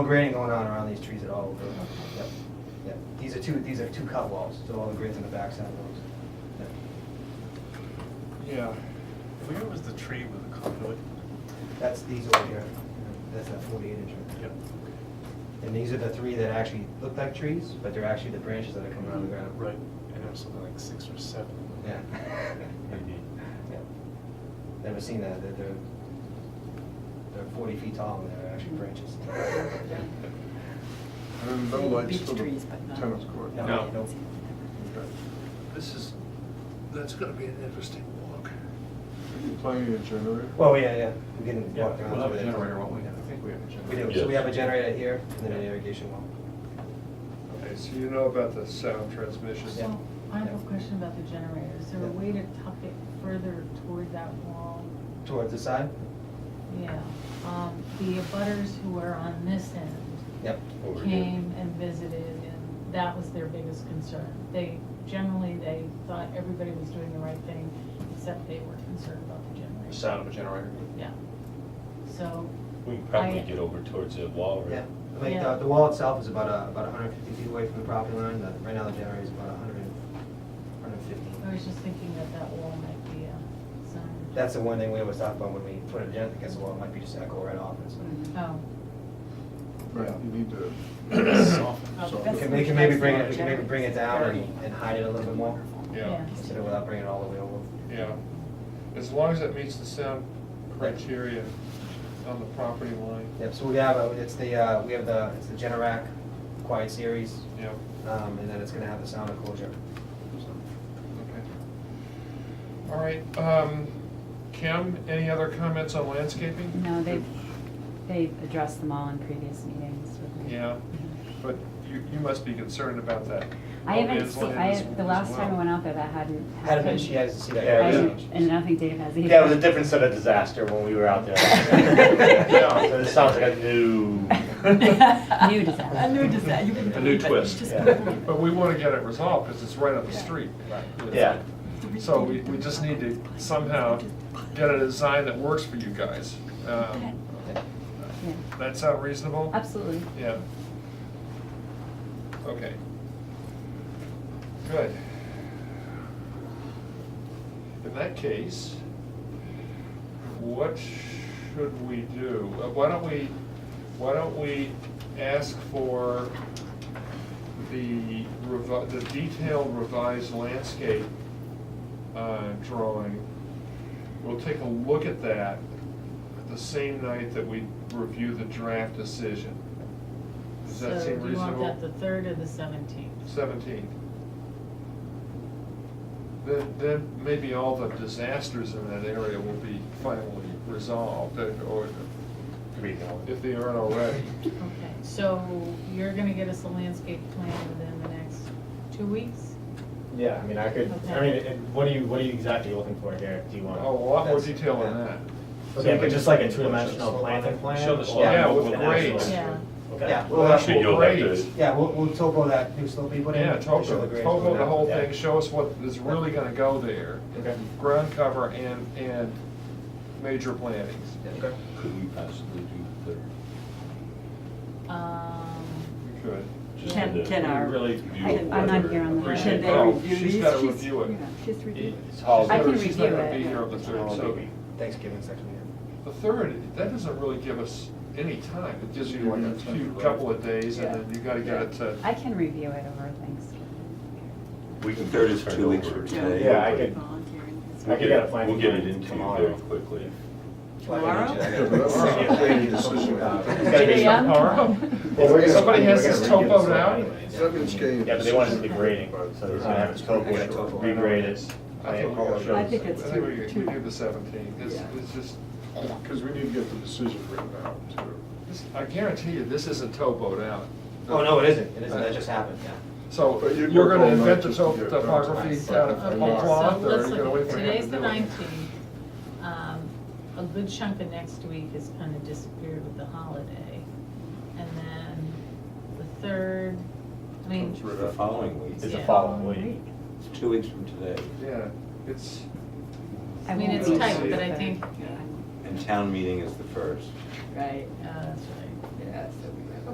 No grading going on around these trees at all. We're- Yep, yep. These are two, these are two cut walls, so all the grids on the backside of those. Yep. Yeah. Where was the tree with the conduit? That's these over here. That's that forty-eight inch. right there. Yep. And these are the three that actually look like trees, but they're actually the branches that are coming out of the ground. Right, and there's something like six or seven. Yeah. Maybe. Yeah. Never seen that, they're, they're, they're forty feet tall and they're actually branches. And no lights Beech for the trees, but not- tennis court? No. Nope. Okay. This is, that's gonna be an interesting walk. You Planning your generator? Well, yeah, yeah, we can Yeah, walk we'll around. have through a there. generator, won't we? I think we have a generator. We do, so we have a generator here and then an irrigation well. Okay, so you know about the sound transmission? Yeah. So, I have a question about the generator. Is there a Yeah. way to tuck it further toward that wall? Towards the side? Yeah. Um, The abutters who are on this end Yep. came and visited, and that was their biggest concern. They, generally, they thought everybody was doing the right thing, except they were concerned about the The generator. sound of a generator. Yeah. So, We can probably I- get over towards the Oh, wall, Yeah, right? I mean, Yeah. the, the wall itself is about, uh, about hundred and fifty feet away from the property line, the, right now the generator is about hundred and, hundred and fifty. I was just thinking that that wall might be a sign. That's the one thing we always talk about when we put it in, against the wall, it might be just echo right off, and so. Oh, Right, Yeah. you need to. Soften. Oh, soften We that's- can, we can maybe bring it, we can maybe bring it down and, and hide it a little bit more, yeah. instead of without bringing it all the way over. Yeah, as long as it meets the sound criteria on the property line, Yep, so we have, uh, it's the, uh, we have the, it's the Generac Quiet Series, yeah, um, and then it's gonna have the sound enclosure. okay. All right, um, Kim, any other comments on landscaping? No, they've, they've addressed them all in previous meetings with me. Yeah, but you, you must be concerned about that. I no haven't man's seen, land I, as- the as last time I well. went out there, that hadn't happened. Had it, she hasn't seen that. Yeah, I yeah. didn't- And I don't think Dave has either. Yeah, it was a different set of disaster when we were out there. Yeah, So this sounds like a new, New disaster. A new design, you couldn't A new believe it. twist. Just Yeah. couldn't believe it. But we want to get it resolved, because it's right up the street. yeah. So we, we just need to somehow get a design that works for you guys. Um, Yeah, That sound reasonable? Absolutely. Yeah. Okay. Good. In that case, what should we do? Uh, Why don't we, why don't we ask for the revi, the detailed revised landscape uh, drawing? We'll take a look at that the same night that we review the draft decision. Does that seem So do you want that the reasonable? third or the seventeenth? Seventeenth. Then, then maybe all the disasters in that area will be finally resolved, and- or Read it all. if they aren't already. Okay, so you're gonna get us a landscape plan within the next two weeks? Yeah, I mean, I could, I mean, Okay. and what are you, what are you exactly looking for here? Do you Oh, A want? Oh, lot more That's- detail than yeah. that. Okay, but just like a two-dimensional planting plan? Show the or- slope. Yeah, with an grades. actual- Yeah. Okay. Yeah, we'll, Well, uh, Actually, you'll have to- yeah, we'll, we'll topo that new slope we put in. Yeah, show topo, the grades topo going the down. whole Yeah. thing, show us what is really gonna go there. Okay. Ground cover and, and major plantings. Yeah, okay. Could we possibly do the, Um, We could. just Ten- the ten hour. really I'm beautiful I'm not weather? here on the. Appreciate they it. Oh, review she's these? gotta review it. yeah, She's reviewed. It's She's holiday. I can never- She's not review gonna it, be here yeah. on the third, so Thanksgiving section, the third, that doesn't really give us any time. It gives you like a Mm-hmm. few, couple of days and then you gotta get it to. I can review it over Thanksgiving. We can turn it two weeks over. from today. Yeah, I could, I We'll could get get a it, planting. we'll get it plan into you tomorrow. very quickly. Today, um, Well, Tomorrow? we're gonna- Somebody has we're gonna this redo the topo slope now? anyways. It's not gonna change. Yeah, but they wanted to do the grading, so he's gonna have his topo, I got topo. regrade it. I plant think all we the gotta- I think shows. it's I think we too- we do the seventeenth. It's, Yeah. it's just, Because we need to get the decision written out, too. this- I guarantee you, this isn't towboat out. yeah. Oh, no, it isn't, it isn't, that just happened, yeah. So But you'd you're work gonna all night invent the just to top- get it done. topography down at okay, the so cloth, or let's you're gonna look wait at- for him to Today's the do it? nineteenth. Um, a good chunk of next week is kind of disappeared with the holiday. And then the third, I mean, Comes right The following It's week, the Yeah. following week. it's two weeks from today, Yeah, it's, I mean, won't it's be tight, here but the I third. think- Yeah. and town meeting is the first. Right. uh, that's right.